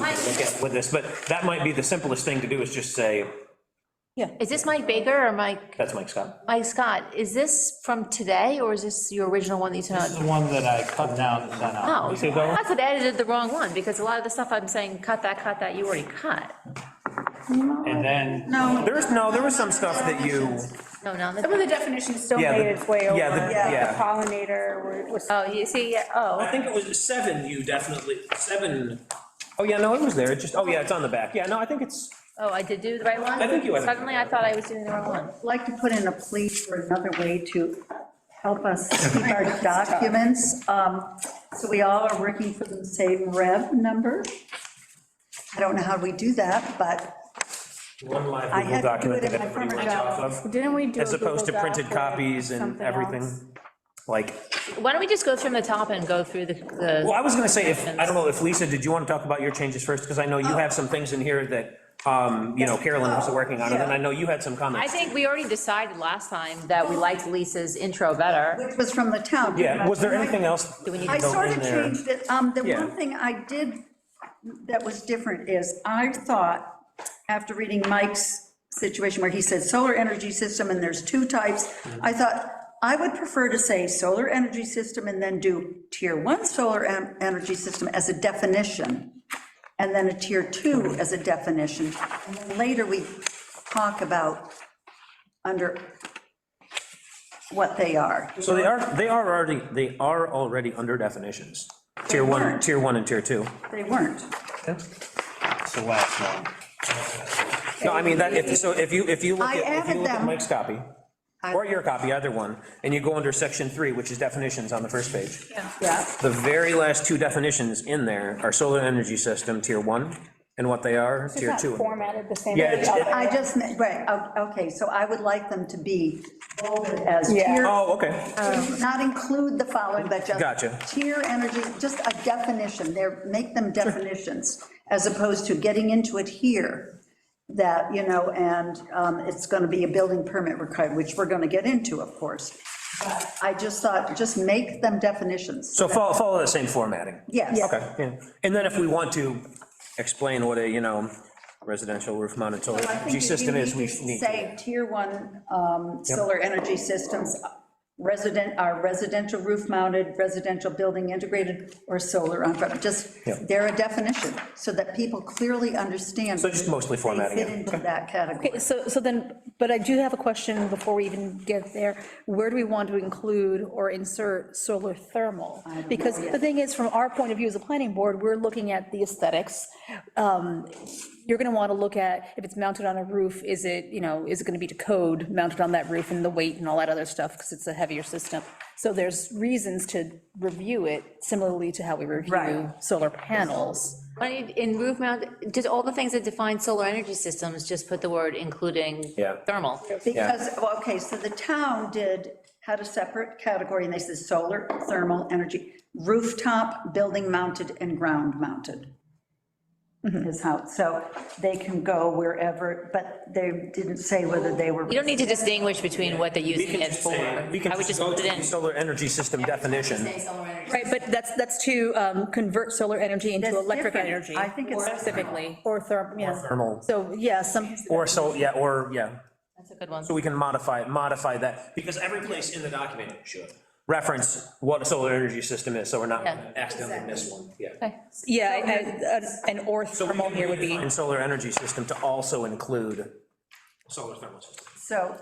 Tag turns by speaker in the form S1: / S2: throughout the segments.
S1: we'll get with this, but that might be the simplest thing to do, is just say,
S2: Is this Mike Baker or Mike,
S1: that's Mike Scott.
S2: Mike Scott? Is this from today, or is this your original one that you sent
S3: This is
S2: out?
S3: the one that I cut down and sent out.
S2: Oh,
S1: see that one?
S2: I could edited the wrong one, because a lot of the stuff I'm saying, cut that, cut that, you already cut.
S3: And then,
S4: No,
S1: There's, no, there was some stuff that you,
S2: No, no,
S4: some of
S2: that's-
S4: the definitions still
S1: Yeah,
S4: made
S1: the-
S4: its way over.
S1: yeah, the- yeah.
S4: The pollinator was.
S2: oh, you see, yeah,
S5: I
S2: oh,
S5: think it was seven, you definitely, seven,
S1: oh, yeah, no, it was there, it just, oh, yeah, it's on the back, yeah, no, I think it's,
S2: oh, I did do the right one?
S1: I think you edited it.
S2: Suddenly, I thought I was doing the wrong one.
S6: like to put in a plea for another way to help us keep our documents. Um, So we all are working for the same rev number. I don't know how we do that, but
S1: one live
S6: I
S1: Google
S6: had to do
S1: document
S6: it in
S1: that
S6: my
S1: everybody
S6: former
S1: went off
S6: job.
S1: of,
S4: Didn't we do? a
S1: as opposed to
S4: Google
S1: printed
S4: Doc with
S1: copies and
S4: something
S1: everything,
S4: else?
S1: like,
S2: Why don't we just go from the top and go through the, the.
S1: well, I was gonna say, if, I don't know, if Lisa, did you want to talk about your changes first? Because I know you have some things in here that, um, you know, Carolyn was working on, and then I know you had some
S2: I
S1: comments.
S2: think we already decided last time that we liked Lisa's intro better.
S6: it was from the town.
S1: Yeah, was there anything else?
S2: Do we need to
S6: I
S1: that
S6: sort
S1: in
S6: of
S1: there?
S6: changed it. Um, The
S1: Yeah.
S6: one thing I did that was different is, I thought, after reading Mike's situation where he said solar energy system and there's two types, I
S1: Mm-hmm.
S6: thought, I would prefer to say solar energy system and then do tier one solar en- energy system as a definition, and then a tier two as a definition. And then Later, we talk about under what they are.
S1: So they are, they are already, they are already under definitions. Tier one, tier one and tier two.
S6: They weren't.
S3: it's the last one.
S1: No, I mean, that, if, so if you, if you look
S6: I
S1: at, if
S6: added
S1: you look at
S6: them.
S1: Mike's copy, or your copy, either one, and you go under section three, which is definitions on the first page,
S6: Yeah.
S1: the very last two definitions in there are solar energy system, tier one, and what they are,
S4: It's
S1: tier
S4: not
S1: two.
S4: Formatted the same.
S1: Yeah,
S4: as the
S1: it's-
S4: other.
S6: I just, meant- right, o- okay, so I would like them to be bolded as
S4: Yeah.
S6: tier,
S1: Oh, okay,
S6: not include the following, but just.
S1: Gotcha.
S6: Tier energy, just a definition, there, make them definitions, as opposed to getting into it here, that, you know, and um, it's going to be a building permit required, which we're going to get into, of course. But I just thought, just make them definitions,
S1: so follow, follow the same formatting.
S6: yes.
S1: Okay, yeah. And then if we want to explain what a, you know, residential roof mounted solar
S6: So I think
S1: energy
S6: if you
S1: system is, we
S6: need to
S1: need to.
S6: Say, tier one um, solar energy systems, uh, resident, are residential roof mounted, residential building integrated, or solar on, prem- just,
S1: Yeah.
S6: they're a definition, so that people clearly understand.
S1: So just mostly formatting
S6: They fit
S1: it.
S6: into that
S7: Okay,
S6: category.
S7: so, so then, but I do have a question before we even get there. Where do we want to include or insert solar thermal? Because the thing is, from our point of view as a planning board, we're looking at the aesthetics. Um, You're going to want to look at, if it's mounted on a roof, is it, you know, is it going to be to code mounted on that roof and the weight and all that other stuff, because it's a heavier system. So there's reasons to review it similarly to how we review solar panels.
S2: Why don't you- In roof mount, just all the things that define solar energy systems, just put the word including
S1: Yeah.
S2: thermal.
S6: Because, well, okay, so the town did, had a separate category, and they said solar, thermal, energy, rooftop, building mounted, and ground mounted. Is how, so they can go wherever, but they didn't say whether they were.
S2: You don't need to distinguish between what they're
S1: We
S2: using
S1: can
S2: it
S1: just
S2: for.
S1: say- we can
S2: I would just
S1: go
S2: put it
S1: to the
S2: in.
S1: Solar energy system definition.
S2: Say solar energy.
S7: Right, but that's, that's to um, convert solar energy into
S6: That's
S7: electric
S6: different.
S7: energy.
S6: I think it's
S7: or Specifically, or therm, yeah.
S1: Thermal,
S7: So, yeah, some,
S1: or so, yeah, or, yeah,
S2: That's a good one.
S1: so we can modify, modify that,
S5: because every place in the document should
S1: reference what a solar energy system is, so we're not.
S2: Yeah.
S5: accidentally miss one, yeah.
S7: yeah, and- and- an or thermal here would be,
S1: And solar energy system to also include,
S5: Solar thermal system.
S6: So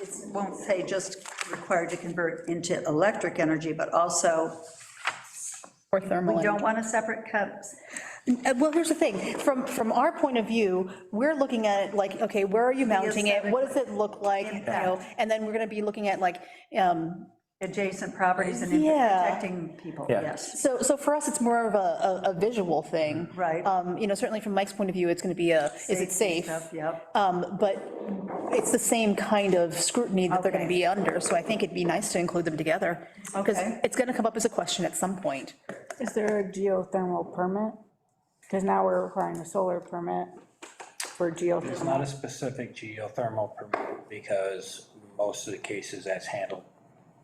S6: it won't say just required to convert into electric energy, but also,
S7: or thermal.
S6: we
S7: energy.
S6: don't want a separate cut.
S7: Uh, Well, here's the thing, from, from our point of view, we're looking at it like, okay, where are you mounting it? What does it look like? You know, and then we're going to be looking at like, um,
S6: Adjacent properties and
S7: Yeah.
S6: protecting people,
S1: Yeah.
S6: yes.
S7: so, so for us, it's more of a, a- a visual thing.
S6: Right.
S7: Um, You know, certainly from Mike's point of view, it's going to be a, is it safe?
S6: Stuff, Yep.
S7: Um, But it's the same kind of scrutiny that they're going to
S6: Okay.
S7: be under, so I think it'd be nice to include them together. Because
S6: Okay.
S7: it's going to come up as a question at some point.
S4: Is there a geothermal permit? Because now we're requiring a solar permit for
S3: It's
S4: geothermal.
S3: not a specific geothermal permit, because most of the cases that's handled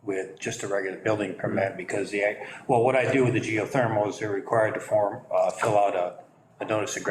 S3: with just a regular building permit, because the, well, what I do with the geothermal is they're required to form, uh, fill out a, a notice of